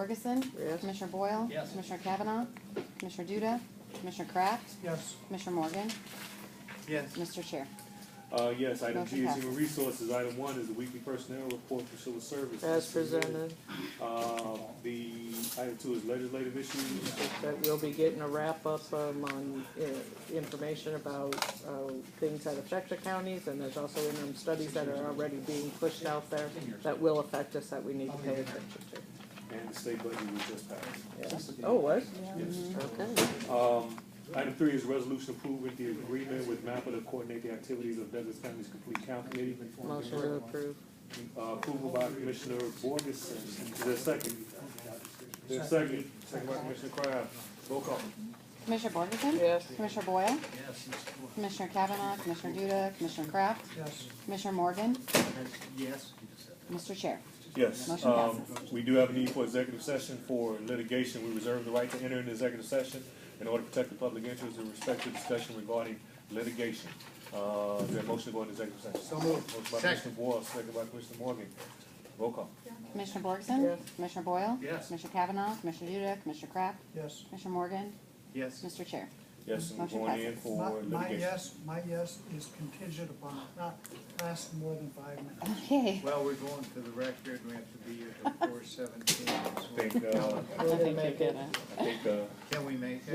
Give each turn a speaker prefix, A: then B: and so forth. A: Ferguson.
B: Yes.
A: Commissioner Boyle.
C: Yes.
A: Commissioner Kavanaugh. Commissioner Duda. Commissioner Kraft.
C: Yes.
A: Commissioner Morgan.
C: Yes.
A: Mr. Chair.
D: Uh, yes, item G
A: Motion
D: is
A: passes.
D: human resources. Item one is the weekly personnel report for civil service.
B: as presented.
D: Uh, the, item two is legislative issues.
B: That we'll be getting a wrap-up um, on uh, information about uh, things that affect the counties, and there's also interim studies that are already being pushed out there that will affect us that we need to pay attention to.
D: And the state budget was just passed.
B: Yes. Oh, what?
D: Yes.
B: Okay.
D: Um, item three is resolution approving the agreement with MAPPA to coordinate the activities of Douglas County's complete count committee.
B: Motion to approve.
D: Uh, approval by Commissioner Borgeson. Is there a second? There's a second. Second by Commissioner Kraft. Roll call.
A: Commissioner Borgeson.
B: Yes.
A: Commissioner Boyle.
C: Yes.
A: Commissioner Kavanaugh. Commissioner Duda. Commissioner Kraft.
C: Yes.
A: Commissioner Morgan.
C: Yes.
A: Mr. Chair.
D: Yes.
A: Motion
D: um, We do have a need for executive session for litigation. We reserve the right to enter an executive session in order to protect the public interest in respect to discussion regarding litigation. Uh, is there a motion to go into executive session? So moved. Motion by Commissioner Boyle, second by Commissioner Morgan. Roll call.
A: Commissioner Borgeson.
B: Yes.
A: Commissioner Boyle.
C: Yes.
A: Commissioner Kavanaugh. Commissioner Duda. Commissioner Kraft.
E: Yes.
A: Commissioner Morgan.
C: Yes.
A: Mr. Chair.
D: Yes, and we're
A: Motion
D: going in
A: passes.
E: My,
D: for
E: my
D: litigation.
E: yes, my yes is contingent upon it not lasting more than five minutes.
A: Okay.
C: Well, we're going to the record, we have to be here till four seventeen.
D: I think, uh,
B: We're gonna make it.
D: I think, uh,
C: Can we make it?